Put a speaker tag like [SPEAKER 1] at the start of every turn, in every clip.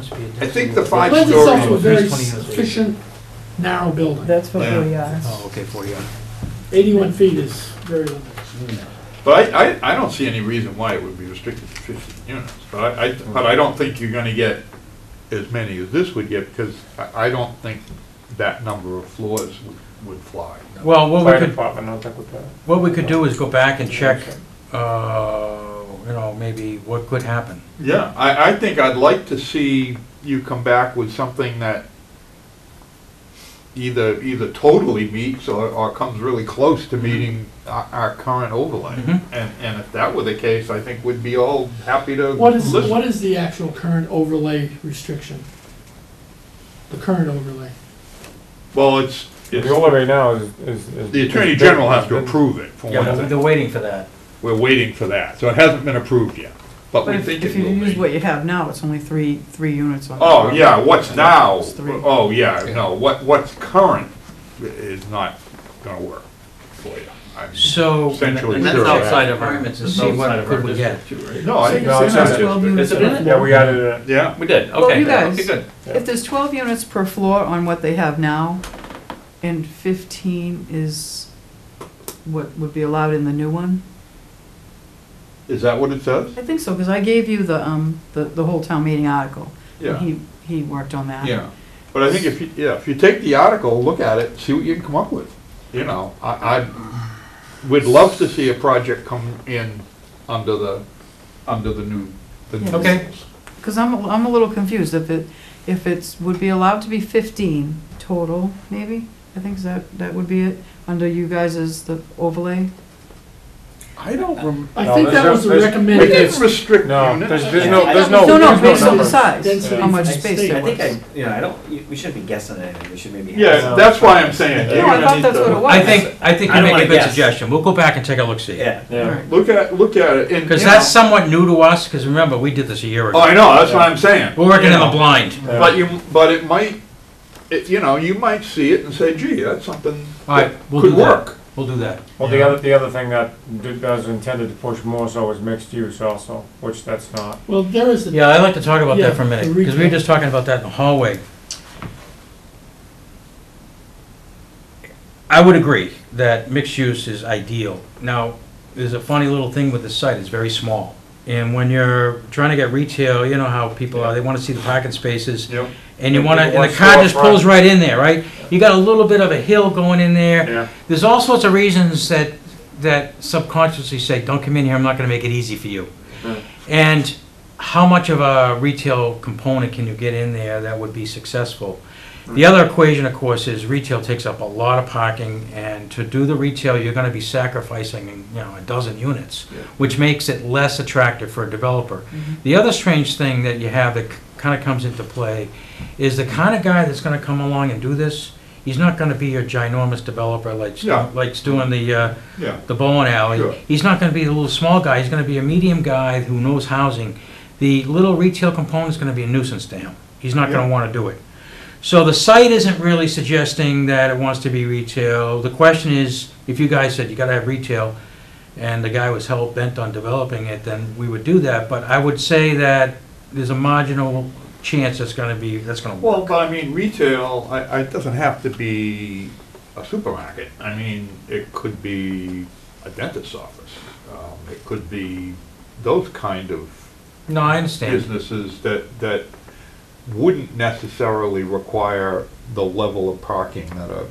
[SPEAKER 1] I
[SPEAKER 2] I think the five
[SPEAKER 3] Lends
[SPEAKER 2] stories.
[SPEAKER 3] itself to a very
[SPEAKER 1] There's 20 units.
[SPEAKER 3] efficient, narrow building.
[SPEAKER 4] That's what we are.
[SPEAKER 1] Oh, okay, forty on.
[SPEAKER 3] Eighty-one feet is very limited.
[SPEAKER 2] But I, I, I don't see any reason why it would be restricted to fifteen units, but I, I, but I don't think you're gonna get as many as this would get, because I, I don't think that number of floors would, would fly.
[SPEAKER 5] Well, what we
[SPEAKER 6] Fire
[SPEAKER 5] could,
[SPEAKER 6] department, I don't think we could.
[SPEAKER 5] what we could do is go back and check, uh, you know, maybe what could happen.
[SPEAKER 2] Yeah, I, I think I'd like to see you come back with something that either, either totally meets or, or comes really close to meeting our, our current overlay.
[SPEAKER 5] Mhm.
[SPEAKER 2] And, and if that were the case, I think we'd be all happy to
[SPEAKER 3] What is,
[SPEAKER 2] listen.
[SPEAKER 3] what is the actual current overlay restriction? The current overlay.
[SPEAKER 2] Well, it's, it's
[SPEAKER 6] The only right now is, is. is-
[SPEAKER 2] The Attorney General has to approve it, for
[SPEAKER 5] Yeah, but
[SPEAKER 2] one
[SPEAKER 5] they're
[SPEAKER 2] thing.
[SPEAKER 5] waiting for that.
[SPEAKER 2] We're waiting for that, so it hasn't been approved yet, but
[SPEAKER 4] But
[SPEAKER 2] we
[SPEAKER 4] if,
[SPEAKER 2] think
[SPEAKER 4] if
[SPEAKER 2] it
[SPEAKER 4] you use
[SPEAKER 2] will
[SPEAKER 4] what
[SPEAKER 2] be.
[SPEAKER 4] you have now, it's only three, three units on.
[SPEAKER 2] Oh, yeah, what's now,
[SPEAKER 4] It's three.
[SPEAKER 2] oh, yeah, no, what, what's current i- is not gonna work for you. I'm-
[SPEAKER 5] So, and
[SPEAKER 2] Essentially,
[SPEAKER 5] that's
[SPEAKER 2] sure.
[SPEAKER 5] outside of our limits, and see what could we get.
[SPEAKER 2] No, I think
[SPEAKER 6] No, it's
[SPEAKER 2] that's
[SPEAKER 6] not.
[SPEAKER 4] Twelve units.
[SPEAKER 2] just,
[SPEAKER 4] Is it in
[SPEAKER 6] Yeah, we added it.
[SPEAKER 2] yeah,
[SPEAKER 7] We did,
[SPEAKER 4] Well,
[SPEAKER 7] okay,
[SPEAKER 4] you
[SPEAKER 7] yeah,
[SPEAKER 4] guys-
[SPEAKER 7] okay, good.
[SPEAKER 4] If there's twelve units per floor on what they have now, and fifteen is what would be allowed in the new one,
[SPEAKER 2] is that what it says?
[SPEAKER 4] I think so, because I gave you the, um, the, the whole town meeting article. and
[SPEAKER 2] Yeah.
[SPEAKER 4] He, he worked on that.
[SPEAKER 2] Yeah, but I think if, you yeah, if you take the article, look at it, see what you can come up with, you know, I, I would love to see a project come in under the, under the new, the new.
[SPEAKER 4] Okay.
[SPEAKER 2] rules.
[SPEAKER 4] Because I'm, I'm a little confused if it, if it's, would be allowed to be fifteen total, maybe? I think that, that would be it, under you guys as the overlay.
[SPEAKER 2] I don't remember.
[SPEAKER 3] I
[SPEAKER 6] No,
[SPEAKER 3] think that
[SPEAKER 6] there's-
[SPEAKER 3] was the
[SPEAKER 6] there's-
[SPEAKER 2] We
[SPEAKER 3] recommended.
[SPEAKER 2] didn't restrict
[SPEAKER 6] No,
[SPEAKER 2] units.
[SPEAKER 6] there's, there's no, there's
[SPEAKER 4] No,
[SPEAKER 6] no,
[SPEAKER 4] no,
[SPEAKER 6] there's
[SPEAKER 4] based on
[SPEAKER 6] no
[SPEAKER 4] the
[SPEAKER 6] numbers.
[SPEAKER 4] size,
[SPEAKER 3] Density.
[SPEAKER 4] how much
[SPEAKER 3] I
[SPEAKER 4] space
[SPEAKER 3] see.
[SPEAKER 4] there
[SPEAKER 3] I
[SPEAKER 8] I
[SPEAKER 4] was.
[SPEAKER 8] think I, you know, I don't, you- we shouldn't be guessing anything, we should maybe. have
[SPEAKER 2] Yeah,
[SPEAKER 8] some-
[SPEAKER 2] that's why I'm saying.
[SPEAKER 4] No, I thought that's what it was.
[SPEAKER 5] I think, I think
[SPEAKER 8] I
[SPEAKER 5] you
[SPEAKER 8] don't
[SPEAKER 5] make a
[SPEAKER 8] wanna
[SPEAKER 5] good
[SPEAKER 8] guess.
[SPEAKER 5] suggestion. We'll go back and take a look, see.
[SPEAKER 8] Yeah,
[SPEAKER 6] Yeah.
[SPEAKER 2] Look at, look at it, and.
[SPEAKER 5] Because
[SPEAKER 2] you know-
[SPEAKER 5] that's somewhat new to us, because remember, we did this a year
[SPEAKER 2] Oh,
[SPEAKER 5] ago.
[SPEAKER 2] I know, that's what I'm saying.
[SPEAKER 5] We're working
[SPEAKER 2] You
[SPEAKER 5] in the
[SPEAKER 2] know,
[SPEAKER 5] blind.
[SPEAKER 6] Yeah.
[SPEAKER 2] But you, but it might, it, you know, you might see it and say, gee, that's something
[SPEAKER 5] All right,
[SPEAKER 2] that
[SPEAKER 5] we'll
[SPEAKER 2] could
[SPEAKER 5] do that.
[SPEAKER 2] work.
[SPEAKER 5] We'll do that.
[SPEAKER 6] Well, the other, the other thing that did, that was intended to push more so was mixed use also, which that's not.
[SPEAKER 3] Well, there is, a-
[SPEAKER 5] Yeah, I'd like to talk about
[SPEAKER 3] Yeah,
[SPEAKER 5] that for a minute,
[SPEAKER 3] the
[SPEAKER 5] because we were
[SPEAKER 3] retail.
[SPEAKER 5] just talking about that in the hallway. I would agree that mixed use is ideal. Now, there's a funny little thing with the site, it's very small. And when you're trying to get retail, you know how people are, they want to see the parking spaces,
[SPEAKER 2] Yep.
[SPEAKER 5] and you want to,
[SPEAKER 6] People
[SPEAKER 5] and
[SPEAKER 6] want
[SPEAKER 5] the car just
[SPEAKER 6] storefront.
[SPEAKER 5] pulls right in there, right? You got a little bit of a hill going in there,
[SPEAKER 6] Yeah.
[SPEAKER 5] there's all sorts of reasons that that subconsciously say, "Don't come in here. I'm not going to make it easy for you."
[SPEAKER 6] Yeah.
[SPEAKER 5] And how much of a retail component can you get in there that would be successful? The other equation, of course, is retail takes up a lot of parking, and to do the retail, you're going to be sacrificing, you know, a dozen units,
[SPEAKER 2] Yeah. Mm-hmm.
[SPEAKER 5] which makes it less attractive for a developer. The other strange thing that you have that kind of comes into play is the kind of guy that's going to come along and do this. He's not going to be your ginormous developer like Stu-
[SPEAKER 2] Yeah.
[SPEAKER 5] like's doing the uh,
[SPEAKER 2] Yeah,
[SPEAKER 5] the Bowen Alley.
[SPEAKER 2] Sure.
[SPEAKER 5] He's not going to be the little small guy. He's going to be a medium guy who knows housing. The little retail component is going to be a nuisance to him. He's not going
[SPEAKER 2] Yeah.
[SPEAKER 5] to want to do it. So the site isn't really suggesting that it wants to be retail. The question is, if you guys said you got to have retail, and the guy was hell bent on developing it, then we would do that. But I would say that there's a marginal chance that's going to be that's going to work.
[SPEAKER 2] well, but I mean, retail, I, I, it doesn't have to be a supermarket. I mean, it could be a dentist's office. Um, it could be those kind of
[SPEAKER 5] no, I understand.
[SPEAKER 2] businesses that, that wouldn't necessarily require the level of parking that a,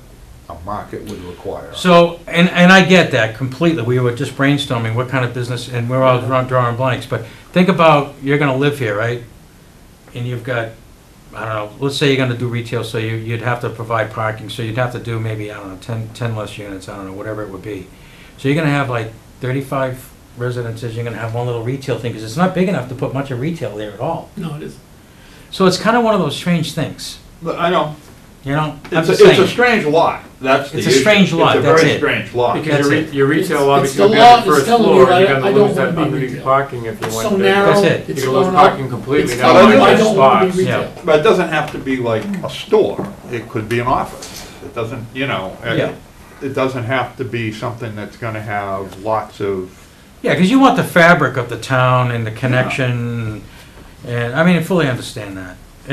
[SPEAKER 2] a market would require.
[SPEAKER 5] So, and, and I get that completely. We were just brainstorming what kind of business, and we're all draw- drawing blanks, but think about, you're gonna live here, right? And you've got, I don't know, let's say you're gonna do retail, so you, you'd have to provide parking, so you'd have to do maybe, I don't know, ten, ten less units, I don't know, whatever it would be. So you're gonna have like thirty-five residences, you're gonna have one little retail thing, because it's not big enough to put much of retail there at all.
[SPEAKER 3] no, it isn't.
[SPEAKER 5] So it's kinda one of those strange things,
[SPEAKER 2] But I know,
[SPEAKER 5] you know? I'm
[SPEAKER 2] it's,
[SPEAKER 5] just
[SPEAKER 2] a- it's a
[SPEAKER 5] saying.
[SPEAKER 2] strange lot, that's the
[SPEAKER 5] It's a
[SPEAKER 2] issue.
[SPEAKER 5] strange lot, that's
[SPEAKER 2] It's a
[SPEAKER 5] it.
[SPEAKER 2] very strange lot.
[SPEAKER 5] Because
[SPEAKER 6] Because
[SPEAKER 5] your
[SPEAKER 6] your,
[SPEAKER 5] re-
[SPEAKER 6] your retail lot,
[SPEAKER 3] It's
[SPEAKER 6] because
[SPEAKER 3] the
[SPEAKER 6] you have
[SPEAKER 3] law
[SPEAKER 6] the
[SPEAKER 3] that's
[SPEAKER 6] first
[SPEAKER 3] telling you
[SPEAKER 6] floor,
[SPEAKER 3] I-
[SPEAKER 6] you're
[SPEAKER 3] I
[SPEAKER 6] gonna
[SPEAKER 3] don't
[SPEAKER 6] lose that
[SPEAKER 3] wanna be
[SPEAKER 6] underneath
[SPEAKER 3] retail.
[SPEAKER 6] parking if you
[SPEAKER 3] It's
[SPEAKER 6] want
[SPEAKER 3] so
[SPEAKER 6] to.
[SPEAKER 3] narrow,
[SPEAKER 5] it.
[SPEAKER 3] it's
[SPEAKER 6] You're gonna lose
[SPEAKER 3] thrown up.
[SPEAKER 6] parking completely,
[SPEAKER 3] It's
[SPEAKER 6] now
[SPEAKER 3] thrown
[SPEAKER 2] you
[SPEAKER 3] up. I
[SPEAKER 2] got
[SPEAKER 3] don't want to
[SPEAKER 6] spots.
[SPEAKER 3] be
[SPEAKER 5] Yeah.
[SPEAKER 3] retail.
[SPEAKER 2] But it doesn't have to be like a store, it could be an office, it doesn't, you know,
[SPEAKER 5] Yeah.
[SPEAKER 2] it, it doesn't have to be something that's gonna have lots of
[SPEAKER 5] Yeah, because you want the fabric of the town and the connection, and, I mean, I fully understand that.